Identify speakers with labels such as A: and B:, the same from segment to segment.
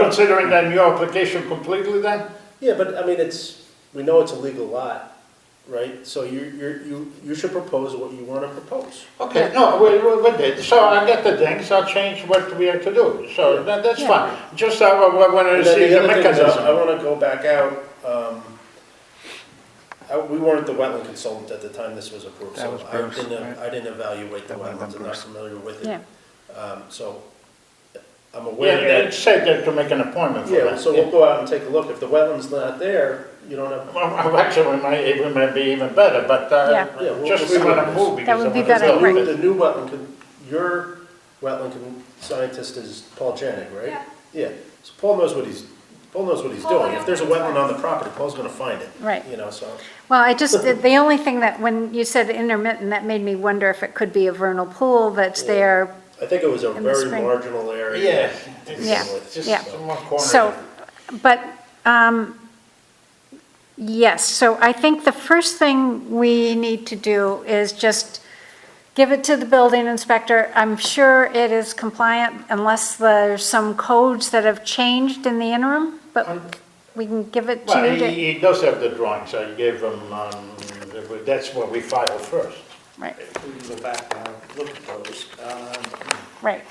A: Considering then your application completely then?
B: Yeah, but I mean, it's, we know it's a legal lot, right? So you, you, you, you should propose what you wanna propose.
A: Okay, no, we, we- we did, so I get the things, I'll change what we have to do, so that, that's
C: Yeah.
A: fine. Just uh, I wa- wa- wanted
B: And
A: to see
B: then the
A: the
B: other thing is, I I
A: mechanism.
B: wanna go back out, um, I, we weren't the wetland consultant at the time this was approved,
D: That
B: so
D: was
B: I
D: Bruce,
B: didn't,
D: right?
B: I didn't evaluate the
D: That would've
B: wetlands,
D: been
B: I'm not
D: Bruce.
B: familiar with
C: Yeah.
B: it. Um, so, I'm
A: Yeah,
B: aware
A: it
B: that,
A: said that to make an appointment for
B: yeah,
A: that.
B: so we'll go out and take a look, if the wetland's not there, you don't have,
A: Well, well, Actually, it might, it might be even better, but,
C: Yeah.
A: uh,
B: Yeah,
A: just
B: we'll-
A: we
B: we'll see what
A: wanna
B: it is.
A: move because I
C: would be
A: wanna
C: better,
A: build
C: right.
A: it.
B: the new wetland, con- your wetland con- scientist is Paul Janik, right?
E: Yeah.
B: Yeah, so Paul knows what he's, Paul knows what he's
E: Paul,
B: doing.
E: I
B: If there's a
E: know what
B: wetland
E: he's
B: on the property, Paul's gonna find it.
C: Right.
B: You know, so,
C: Well, I just, the the only thing that, when you said intermittent, that made me wonder if it could be a vernal pool that's there.
B: I think it was a
C: In the
B: very
C: spring.
B: marginal area.
A: Yeah.
B: to
A: it's
C: Yeah,
B: begin with,
A: Just
C: yeah.
B: so.
A: one corner.
C: So, but, um, yes, so I think the first thing we need to do is just give it to the building inspector. I'm sure it is compliant unless there's some codes that have changed in the interim, but we can give it to
A: Well,
C: you. to-
A: he, he does have the drawings, I gave him, um, that's what we filed first.
C: Right.
F: If we can go back and look at those, um,
C: Right.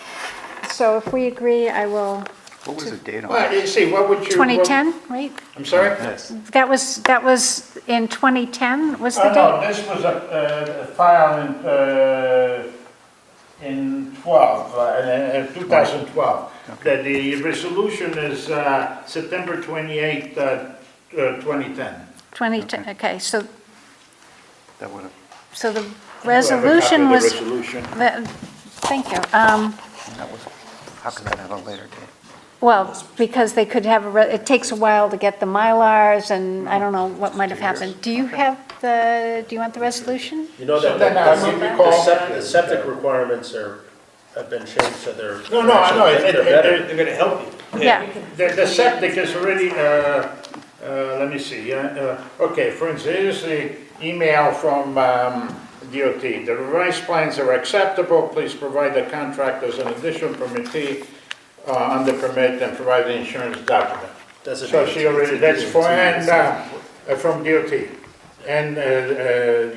C: So if we agree, I will,
D: What was the date on
A: Well,
D: that?
A: you see, what would you? what-
C: 2010, right?
A: I'm sorry?
D: Yes.
C: That was, that was in 2010, was the
A: Uh, no,
C: date?
A: this was a, uh, file in, uh, in 12, uh, uh, 2012. That the resolution is, uh, September 28th, uh, uh, 2010.
C: 2010, okay, so,
D: That would have,
C: so the resolution
A: Do I have a copy of the
C: was,
A: resolution?
C: the- thank you. Um,
D: that was, how could that have a later date?
C: Well, because they could have, a re- it takes a while to get the Mylars, and I don't know what might have happened. Do you have the, do you want the resolution?
B: You know that
A: Then I
B: the-
A: would
B: the
A: recall.
B: septic, the septic requirements are, have been changed, so they're.
A: No, no, I know, it- it-
B: They're better.
A: it-
F: they're gonna help you.
C: Yeah,
A: The, the septic is already, uh, uh, let me see, uh, uh, okay, for instance, here's the email from, um, DOT. The revised plans are acceptable, please provide the contractors an additional permittee, uh, on the permit and provide the insurance document.
B: That's a
A: So she
B: DOT.
A: already, that's for, and, uh,
B: DOT.
A: uh, from DOT, and, uh, uh,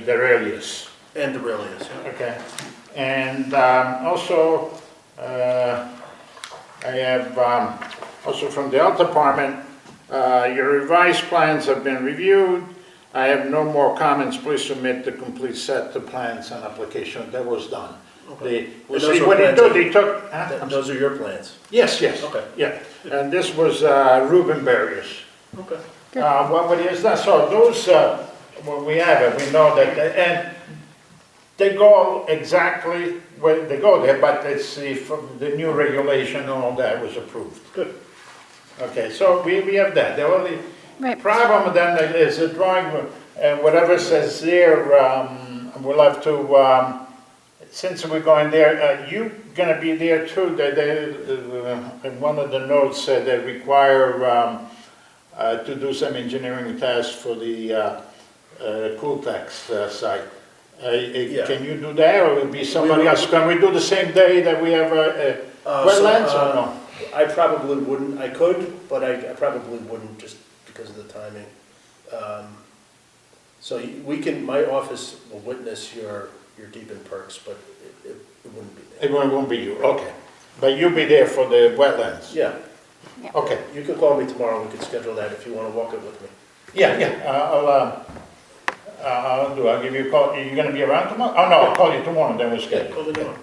A: the radius.
B: And the Aurelius, yeah.
A: Okay, and um, also, uh, I have, um, also from the health department, uh, your revised plans have been reviewed. I have no more comments, please submit the complete set of plans and application, that was done. They,
B: Well, those
A: see,
B: were
A: what they
B: plans
A: do,
B: that-
A: they took, huh?
B: Th-
A: I'm
B: Those are your plans.
A: Yes, yes.
B: Okay.
A: Yeah, and this was uh, Ruben Barrios.
B: Okay.
A: Uh, What what he has done, so those, uh, when we have it, we know that, they- and they go exactly where they go there, but it's the, from the new regulation and all that was approved. Good. Okay, so we, we have that. The only
C: Right.
A: problem then is the drawing, and whatever says there, um, we'll have to, um, since we're going there, uh, you gonna be there too, they, they, uh, in one of the notes said they require, um, uh, to do some engineering tasks for the, uh, uh, Cooltex uh, site. Uh, uh,
B: Yeah.
A: can you do that, or will be somebody else? Can we do the same day that we have, uh, uh,
B: Uh, so,
A: wetlands or
B: uh,
A: no?
B: I probably wouldn't, I could, but I, I probably wouldn't just because of the timing. Um, So you- we can, my office will witness your, your deep in perks, but it, it it wouldn't be there.
A: It won't won't be you, okay. But you'll be there for the wetlands?
B: Yeah,
A: Okay,
B: you can call me tomorrow, we can schedule that if you wanna walk it with me.
A: yeah, yeah, uh, I'll, uh, uh, I'll do, I'll give you a call, you gonna be around tomorrow? Oh, no, I'll call you tomorrow, then we'll schedule. Um,
B: Call me tomorrow.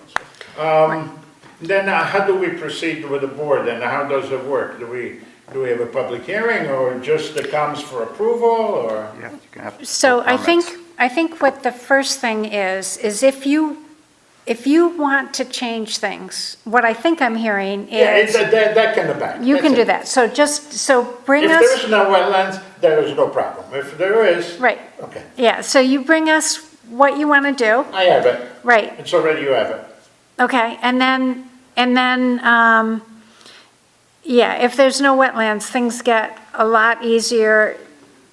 A: Then uh, how do we proceed with the board, and how does it work? Do we, do we have a public hearing, or just it comes for approval, or?
D: Yeah, you can have.
C: so I think,
D: comments.
C: I think what the first thing is, is if you, if you want to change things, what I think I'm hearing
A: Yeah, it's,
C: is,
A: that, that can be back.
C: you can do
A: That's it.
C: that. So just, so bring us.
A: If there is no wetlands, there is no problem. If there is.
C: Right,
A: Okay,
C: yeah, so you bring us what you want to do,
A: I have it,
C: right,
A: it's already, you have it.
C: okay, and then, and then, um, yeah, if there's no wetlands, things get a lot easier,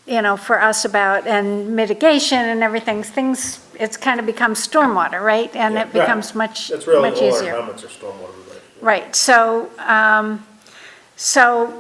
C: you know, for us about, and mitigation and everything, things, it's kind of becomes stormwater, right? And
B: Yeah,
C: it
B: right.
C: becomes much,
B: That's really
C: much
B: all our
C: easier.
B: comments are stormwater related.
C: Right, so, um, So